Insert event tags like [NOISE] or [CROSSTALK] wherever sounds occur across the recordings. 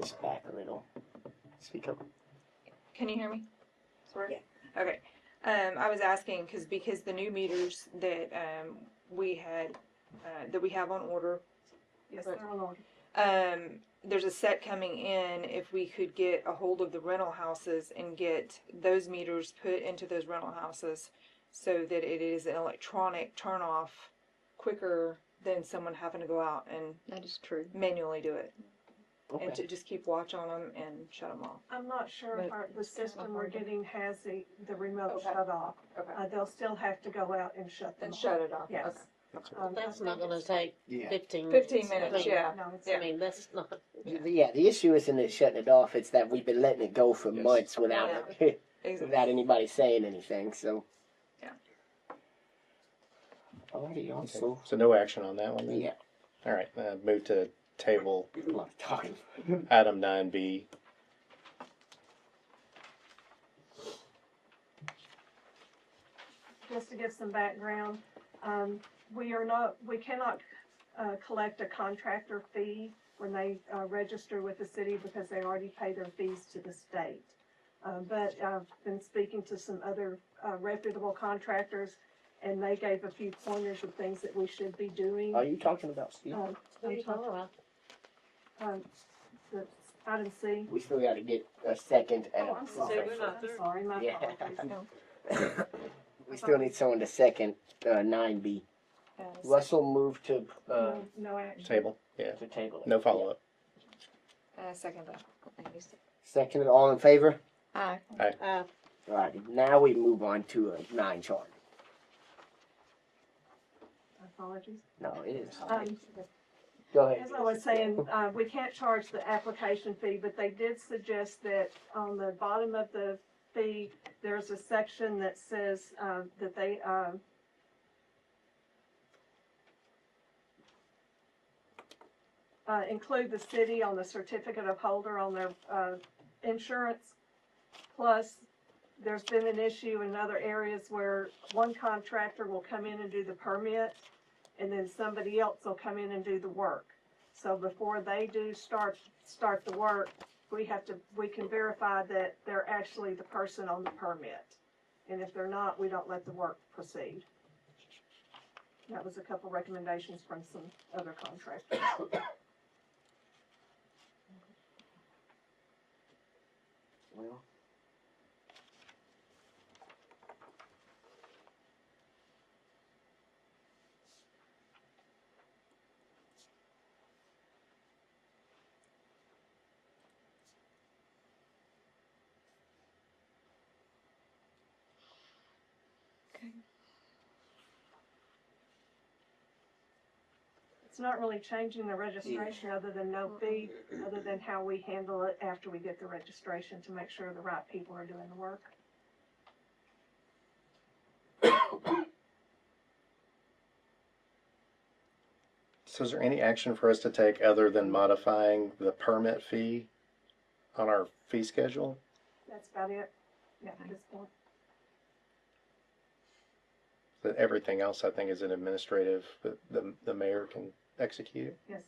this back a little. Speak up. Can you hear me? Sorry. Yeah. Okay. Um, I was asking because because the new meters that um, we had uh, that we have on order, Yes, But- they're on order. um, there's a set coming in. If we could get a hold of the rental houses and get those meters put into those rental houses, so that it is an electronic turn off quicker than someone having to go out and That is true. manually do it, and Okay. to just keep watch on them and shut them off. I'm not sure if But our, the it's still system we're operating. getting has the, the remote Okay. shut off. Okay. Uh, they'll still have to go out and shut them And off. shut it off. Yes. That's right. Um, I That's not think gonna it's- take Yeah. fifteen minutes. 15 I minutes, mean, yeah. No, it's I Yeah. not. mean, that's not, The- Yeah, the issue isn't it shutting it off, it's that we've been letting it go for Yes. months without it, Okay. [LAUGHS] Exactly. without anybody saying anything, so. Yeah. Alrighty, Okay, also, So no action on that one then? yeah, All right, uh, move to table a lot of talking. item nine B. just to give some background, um, we are not, we cannot, uh, collect a contractor fee when they, uh, register with the city because they already pay their fees to the state. Uh, but I've been speaking to some other, uh, reputable contractors and they gave a few pointers of things that we should be doing. Are you talking about Steve? Um, there you talking- go. um, the item C. We still gotta get a second and Oh, a I'm sorry, proof. I'm sorry, my Yeah. apologies. We still need someone to second, uh, nine B. Yes. Russell moved to, uh, No- No action. Table, yeah. to table. it. No follow-up. Uh, second that. Seconded, all in favor? Aye. Uh, Alrighty, now we move on to a nine chart. Apologies. No, it is. Um, Go ahead. As I was saying, uh, we can't charge the application fee, but they did suggest that on the bottom of the fee, there's a section that says, um, that they, um, uh, include the city on the certificate of holder on their, uh, insurance. Plus, there's been an issue in other areas where one contractor will come in and do the permit, and then somebody else will come in and do the work. So before they do start, start the work, we have to, we can verify that they're actually the person on the permit. And if they're not, we don't let the work proceed. That was a couple recommendations from some other contractors. Well, It's not really changing the registration other than no fee, other than how we handle it after we get the registration to make sure the right people are doing the work. So is there any action for us to take other than modifying the permit fee on our fee schedule? That's about it. Yeah, at this point. That everything else I think is an administrative, that the, the mayor can execute? Yes.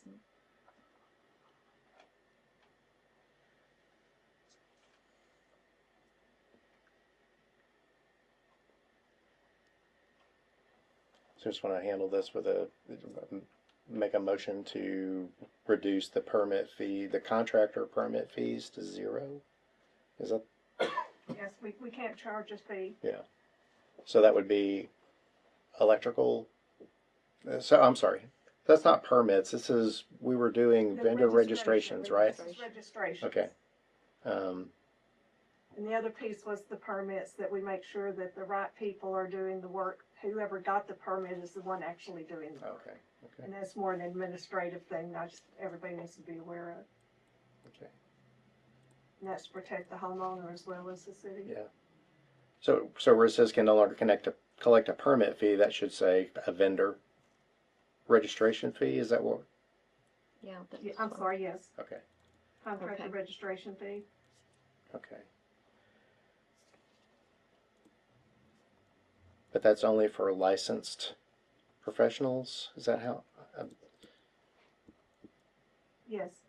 So just want to handle this with a, make a motion to reduce the permit fee, the contractor permit fees to zero? Is that, Yes, we, we can't charge a fee. so that would be electrical? uh, So, I'm sorry, that's not permits, this is, we were doing The vendor registration, registrations, right? registration, Registrations. Okay. Um, And the other piece was the permits, that we make sure that the right people are doing the work. Whoever got the permit is the one actually doing the work. okay, okay, And that's more an administrative thing, not just, everybody needs to be aware of. okay. And that's to protect the homeowner as well as the city. Yeah. So, so where it says can no longer connect a, collect a permit fee, that should say a vendor registration fee, is that what? Yeah. that Yeah, is I'm fine. sorry, yes, Okay, contractor Okay. registration fee. okay. But that's only for licensed professionals, is that how, Yes,